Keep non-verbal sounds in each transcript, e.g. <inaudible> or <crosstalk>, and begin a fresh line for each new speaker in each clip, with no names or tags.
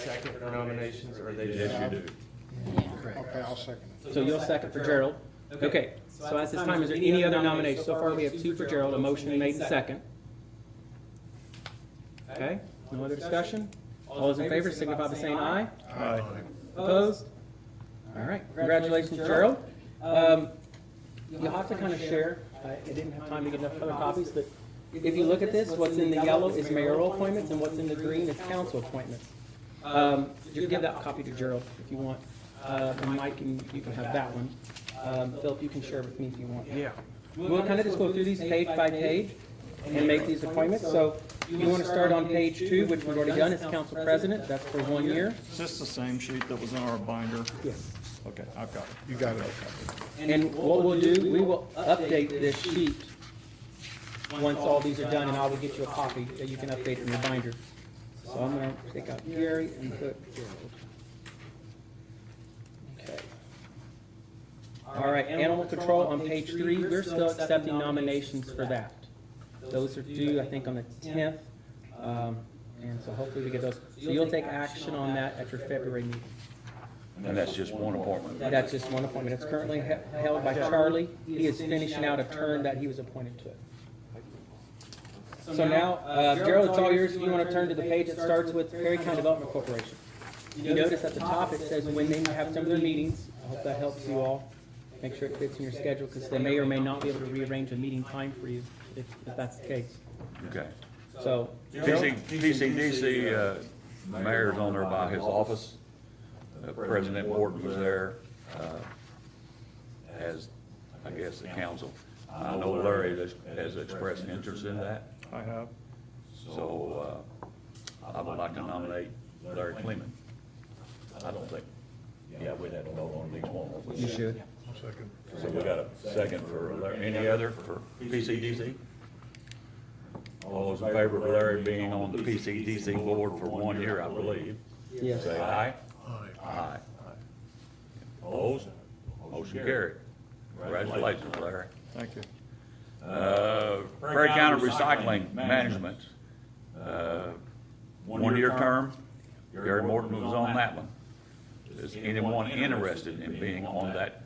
second for nominations, or they just?
Yes, you do.
Okay, I'll second it.
So you'll second for Gerald? Okay, so at this time, is there any other nominations? So far, we have two for Gerald, a motion made and second. Okay, no other discussion? All those in favor signify by saying aye.
Aye.
Opposed? All right, congratulations, Gerald. Um, You'll have to kind of share, uh, I I didn't have time to get enough other copies, but if you look at this, what's in the yellow is mayoral appointments, and what's in the green is council appointments. Um, You can give that copy to Gerald if you want, Uh, and Mike, can- you can have that one. Um, Philip, you can share with me if you want.
Yeah.
We'll kind of just go through these page by page and make these appointments. So you want to start on page two, which we've already done, is council president, that's for one year.
Is this the same sheet that was in our binder?
Yes.
Okay, I've got it.
You got it, okay.
And what we'll do, we will update this sheet once all these are done, and I will get you a copy that you can update in your binder. So I'm gonna take out Gary and put Gerald. Okay. All right, animal control on page three, we're still accepting nominations for that. Those are due, I think, on the tenth, um, and so hopefully we get those. So you'll take action on that at your February meeting.
And that's just one appointment.
That's just one appointment. It's currently he- held by Charlie. He is finishing out a term that he was appointed to. So now, uh, Gerald, it's all yours. If you want to turn to the page that starts with Perry County Development Corporation. You notice at the top, it says when they have some of their meetings. I hope that helps you all. Make sure it fits in your schedule because they may or may not be able to rearrange a meeting time for you if, if that's the case.
Okay.
So,
TC TCDC, uh, mayor's on there by his office. Uh, President Morton was there, uh, as, I guess, the council. I know Larry has- has expressed interest in that,
I have.
so, uh, I would like to nominate Larry Cleman. I don't think, yeah, we'd have to vote on each one. wouldn't we?
you should.
I'll second.
So we got a second for Larry. Any other for PCDC? All those in favor of Larry being on the PCDC board for one year, I believe,
Yes.
say aye.
Aye.
Aye. Opposed? Motion carried. Congratulations, Larry.
Thank you.
Uh, Prairie County Recycling Management, uh, one-year term. Gary Morton was on that one. Is anyone interested in being on that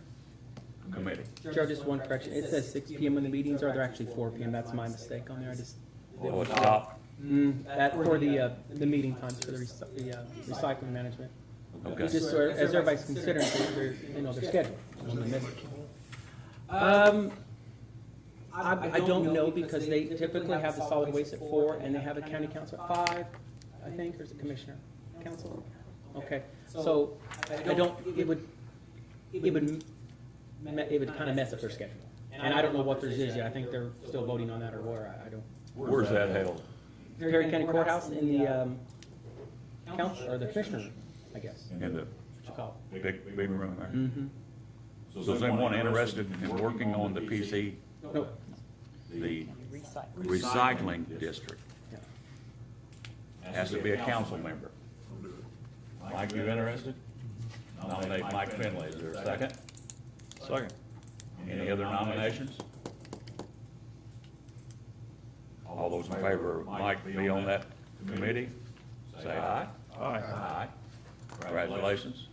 committee?
Gerald, just one correction. It says six P M when the meetings are. They're actually four P M. That's my mistake on there. I just
Oh, it's top.
Mm, that, for the, uh, the meeting times for the recy- the, uh, recycling management.
Okay.
Just so, as everybody's considering their, their, you know, their schedule. Um, I, I don't know because they typically have the solid waste at four and they have a county council at five, I think, or is it commissioner? Council? Okay, so I don't, it would, it would, me- it would kind of mess up their schedule. And I don't know what theirs is yet. I think they're still voting on that or where. I, I don't.
Where's that held?
Perry County Courthouse in the, um, council, or the commissioner, room, I guess,
In the
what you call
big, big room
it.
there?
Mhm.
So is anyone interested in working on the PC,
Nope.
the
um,
Recycle.
recycling district?
Yeah.
Has to be a council member. Mike, you interested? Nominate Mike Finley. Is there a second?
Second.
Any other nominations? All those in favor of Mike be on that committee, say aye.
Aye.
Aye. Congratulations.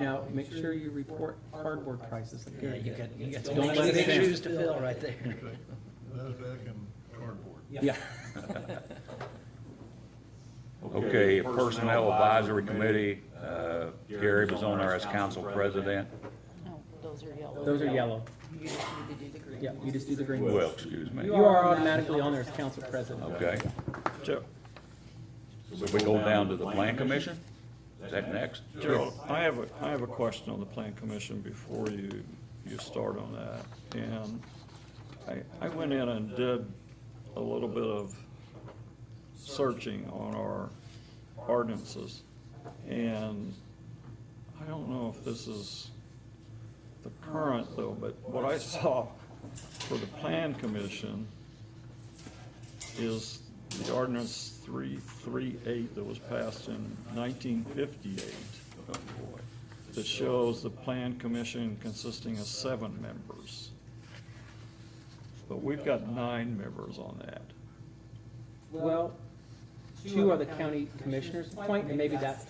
Now, make sure you report cardboard prices.
Yeah, you got, you got some
Don't let it
big
in.
shoes to fill right there.
NASDAQ and cardboard.
<laughs> Yeah.
Okay, Personnel Advisory Committee, uh, Gary was on there as council president.
Oh, those are yellow.
Those are yellow.
You just need to do the green.
Yeah, you just do the green.
Well, excuse me.
You are automatically on there as council president.
Okay,
Joe,
so we go down to the Plan Commission? Is that next?
Gerald, I have a, I have a question on the plan commission before you, you start on that. And I, I went in and did a little bit of searching on our ordinances. And I don't know if this is the current though, but what I saw for the plan commission is the ordinance three, three, eight that was passed in nineteen fifty-eight that shows the plan commission consisting of seven members. But we've got nine members on that.
Well, two are the county commissioners' appointment, and maybe that's